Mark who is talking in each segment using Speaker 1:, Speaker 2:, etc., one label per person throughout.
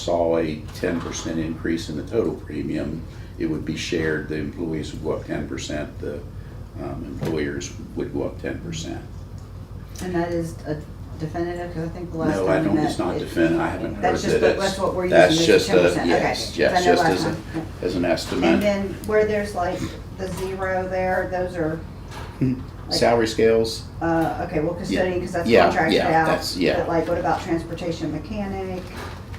Speaker 1: saw a ten percent increase in the total premium, it would be shared, the employees would go up ten percent, the um, employers would go up ten percent.
Speaker 2: And that is a definitive, because I think the last time
Speaker 1: No,
Speaker 2: we
Speaker 1: I
Speaker 2: met.
Speaker 1: don't, it's not
Speaker 2: it-
Speaker 1: definitive, I haven't heard
Speaker 2: That's
Speaker 1: that
Speaker 2: just what-
Speaker 1: it's.
Speaker 2: that's what we're
Speaker 1: that's
Speaker 2: using, is
Speaker 1: just a-
Speaker 2: 10%.
Speaker 1: Yes,
Speaker 2: Okay,
Speaker 1: yes,
Speaker 2: so I know
Speaker 1: just
Speaker 2: last
Speaker 1: as a,
Speaker 2: time. Yeah.
Speaker 1: as an
Speaker 2: And
Speaker 1: estimate.
Speaker 2: then where there's like the zero there, those are, like-
Speaker 1: Salary scales,
Speaker 2: uh, okay, well custodian, because that's
Speaker 1: Hmm. Yeah,
Speaker 2: contracted
Speaker 1: yeah,
Speaker 2: out.
Speaker 1: that's- yeah.
Speaker 2: But like, what about transportation mechanic,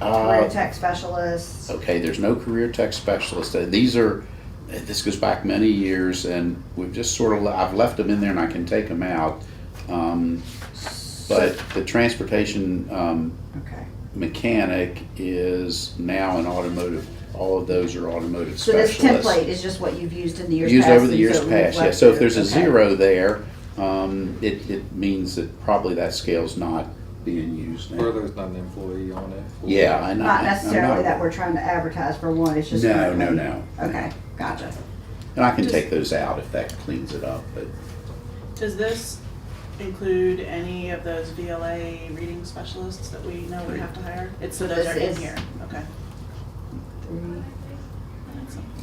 Speaker 2: career
Speaker 1: uh,
Speaker 2: tech specialist?
Speaker 1: Okay, there's no career tech specialist. Uh, These are, uh, this goes back many years and we've just sort of, I've left them in there and I can take them out. Um, But the transportation um,
Speaker 2: Okay,
Speaker 1: mechanic is now an automotive, all of those are automotive
Speaker 2: so this
Speaker 1: specialists.
Speaker 2: template is just what you've used in the years past?
Speaker 1: Used over the
Speaker 2: and
Speaker 1: years
Speaker 2: so we've
Speaker 1: past, yeah.
Speaker 2: left
Speaker 1: So if
Speaker 2: it.
Speaker 1: there's a
Speaker 2: Okay.
Speaker 1: zero there, um, it, it means that probably that scale's not being used
Speaker 3: Or
Speaker 1: now.
Speaker 3: there's not an employee on it.
Speaker 1: Yeah, I know.
Speaker 2: Not
Speaker 1: I'm
Speaker 2: necessarily
Speaker 1: not-
Speaker 2: that we're trying to advertise for one, it's just.
Speaker 1: No, no,
Speaker 2: currently-
Speaker 1: no.
Speaker 2: Okay, gotcha.
Speaker 1: And I can
Speaker 4: Just-
Speaker 1: take those out if that cleans it up, but
Speaker 4: Does this include any of those VLA reading specialists that we know we have to hire? It's, so those
Speaker 2: This
Speaker 4: are in
Speaker 2: is-
Speaker 4: here, okay.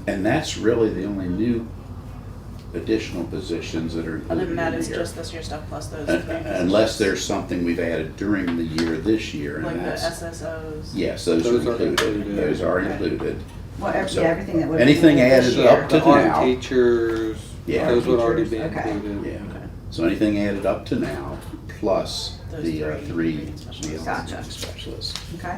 Speaker 1: And that's really the only new additional positions that are
Speaker 4: Other
Speaker 1: included in
Speaker 4: than
Speaker 1: the year.
Speaker 4: that, it's just this year stuff plus those.
Speaker 1: Un- un- Unless there's something we've added during the year this year,
Speaker 4: Like
Speaker 1: and
Speaker 4: the
Speaker 1: that's,
Speaker 4: SSOs.
Speaker 1: yes, those
Speaker 3: Those
Speaker 1: are
Speaker 3: are
Speaker 1: included,
Speaker 3: included.
Speaker 1: those are
Speaker 4: Okay.
Speaker 1: included.
Speaker 2: Well, ev-
Speaker 1: So,
Speaker 2: yeah, everything that would.
Speaker 1: anything added
Speaker 3: The
Speaker 1: up to
Speaker 3: the art
Speaker 1: now.
Speaker 3: teachers,
Speaker 1: Yeah.
Speaker 3: those would already be
Speaker 2: Teachers, okay.
Speaker 3: included.
Speaker 1: Yeah, so anything added up to now, plus
Speaker 4: Those
Speaker 1: the uh,
Speaker 4: three
Speaker 1: three
Speaker 4: specialists.
Speaker 2: Gotcha.
Speaker 1: specialists.
Speaker 2: Okay,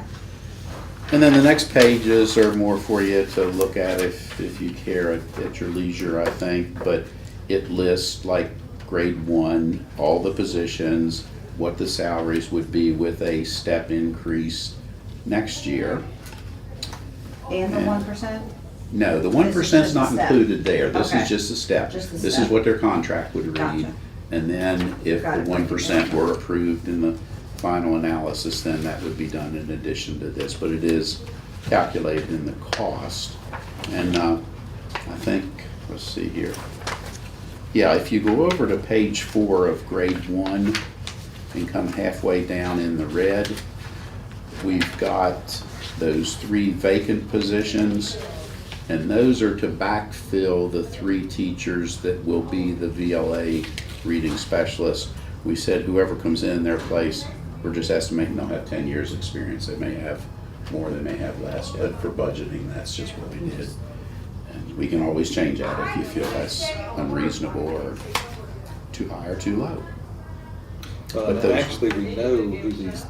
Speaker 1: And then the next pages are more for you to look at if, if you care at, at your leisure, I think. But it lists like grade one, all the positions, what the salaries would be with a step increase next year.
Speaker 2: and the
Speaker 1: Yeah.
Speaker 2: one percent?
Speaker 1: No, the one
Speaker 2: This is
Speaker 1: percent's
Speaker 2: just a
Speaker 1: not
Speaker 2: step.
Speaker 1: included there. This
Speaker 2: Okay.
Speaker 1: is just a step.
Speaker 2: Just a
Speaker 1: This is
Speaker 2: step.
Speaker 1: what their contract would read.
Speaker 2: Gotcha.
Speaker 1: And then if
Speaker 2: Got
Speaker 1: the
Speaker 2: it.
Speaker 1: one percent were approved in the final analysis, then that would be done in addition to this, but it is calculated in the cost. And, uh, I think, let's see here. Yeah, if you go over to page four of grade one and come halfway down in the red, we've got those three vacant positions. And those are to backfill the three teachers that will be the VLA reading specialists. We said whoever comes in their place, we're just estimating they'll have ten years' experience. They may have more, they may have less, but for budgeting, that's just what we did. And we can always change that if you feel that's unreasonable or too high or too low. But
Speaker 3: But
Speaker 1: those-
Speaker 3: actually, we know who these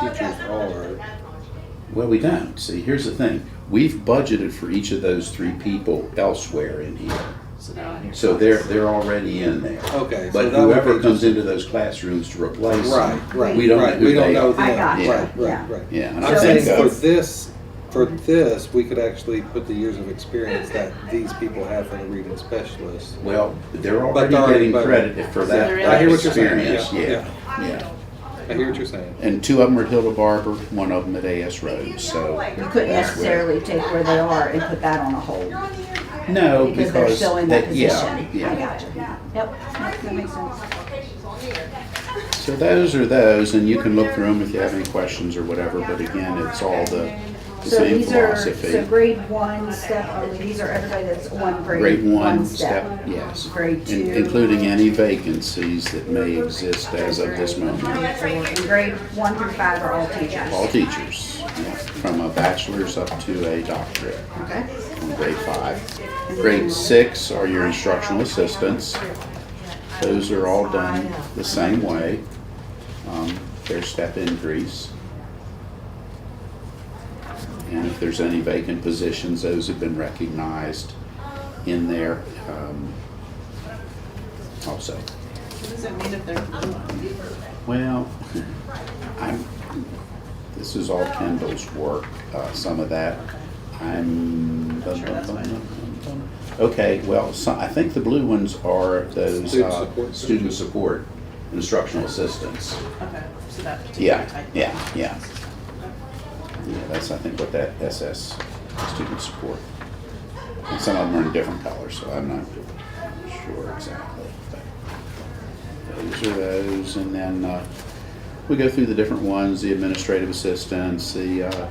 Speaker 3: teachers are.
Speaker 1: Well, we don't. See, here's the thing. We've budgeted for each of those three people elsewhere in here.
Speaker 4: So they're on here.
Speaker 1: So they're, they're already in there.
Speaker 3: Okay. so
Speaker 1: But
Speaker 3: that would
Speaker 1: whoever
Speaker 3: be
Speaker 1: comes into those classrooms to replace
Speaker 3: Right,
Speaker 1: them,
Speaker 3: right,
Speaker 1: we don't know
Speaker 3: right.
Speaker 1: who
Speaker 3: We don't
Speaker 1: they
Speaker 3: know
Speaker 1: are.
Speaker 3: them.
Speaker 2: I got
Speaker 1: you,
Speaker 3: Right,
Speaker 2: yeah.
Speaker 3: right, right.
Speaker 1: Yeah, and I
Speaker 3: I'm
Speaker 2: So
Speaker 1: think
Speaker 2: it's-
Speaker 3: saying for
Speaker 1: that's,
Speaker 3: this, for this, we could actually put the years of experience that these people have for the reading specialist.
Speaker 1: well, they're
Speaker 3: But
Speaker 1: already
Speaker 3: they're already
Speaker 1: getting
Speaker 3: voted.
Speaker 1: credit for
Speaker 4: So
Speaker 1: that
Speaker 4: they're in
Speaker 3: I
Speaker 1: that
Speaker 3: hear what you're saying.
Speaker 1: experience,
Speaker 3: Yeah,
Speaker 1: yeah, yeah.
Speaker 3: I hear what you're saying.
Speaker 1: And two of them are at Hilda Barber, one of them at AS Road, so.
Speaker 2: You couldn't
Speaker 1: that's where-
Speaker 2: necessarily take where they are and put that on a hold.
Speaker 1: No,
Speaker 2: Because they're
Speaker 1: because,
Speaker 2: still in that
Speaker 1: that- yeah,
Speaker 2: position. I
Speaker 1: yeah.
Speaker 2: gotcha. Oh, Yep, that makes sense.
Speaker 1: So those are those, and you can look through them if you have any questions or whatever, but again, it's all the the
Speaker 2: So
Speaker 1: same
Speaker 2: these are, so
Speaker 1: philosophy.
Speaker 2: grade one step, only. these are everybody that's one grade.
Speaker 1: Grade one, step, yes.
Speaker 2: Grade
Speaker 1: In-
Speaker 2: two.
Speaker 1: Including any vacancies that may exist as of this moment.
Speaker 2: And grade one through five are all teachers.
Speaker 1: all teachers, yeah, from a bachelor's up to a doctorate,
Speaker 2: Okay,
Speaker 1: from grade five. Grade six are your instructional assistants. Those are all done the same way. Um, their step increase. And if there's any vacant positions, those have been recognized in there, um, also.
Speaker 4: What does it mean if they're blue on?
Speaker 1: Well, I'm, this is all Kendall's work, uh, some of that. I'm.
Speaker 4: Not sure that's mine.
Speaker 1: Okay, well, so, I think the blue ones are those,
Speaker 3: Student
Speaker 1: uh,
Speaker 3: support.
Speaker 1: student support, instructional assistants.
Speaker 4: Okay, so that particular
Speaker 1: Yeah,
Speaker 4: type.
Speaker 1: yeah, yeah. Yeah, that's, I think, what that SS, student support. And some of them are in different colors, so I'm not sure exactly. but Those are those, and then, uh, we go through the different ones, the administrative assistants, the, uh,